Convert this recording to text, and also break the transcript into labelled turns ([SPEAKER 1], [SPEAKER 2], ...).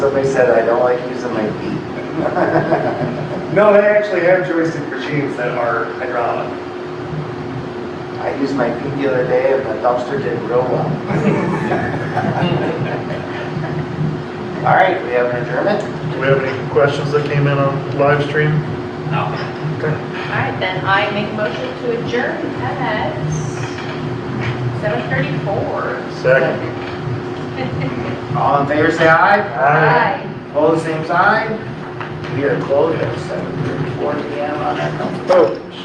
[SPEAKER 1] Somebody said I don't like using my feet.
[SPEAKER 2] No, they actually have joystick machines that are hydraulic.
[SPEAKER 1] I used my feet the other day and the dumpster did real well. All right, we have an adjournment?
[SPEAKER 3] Do we have any questions that came in on live stream?
[SPEAKER 4] All right, then I make a motion to adjourn at 7:34.
[SPEAKER 3] Second.
[SPEAKER 1] All in favor, say aye.
[SPEAKER 4] Aye.
[SPEAKER 1] Opposed, same sign. We are closed at 7:34 PM on that.
[SPEAKER 3] Oh.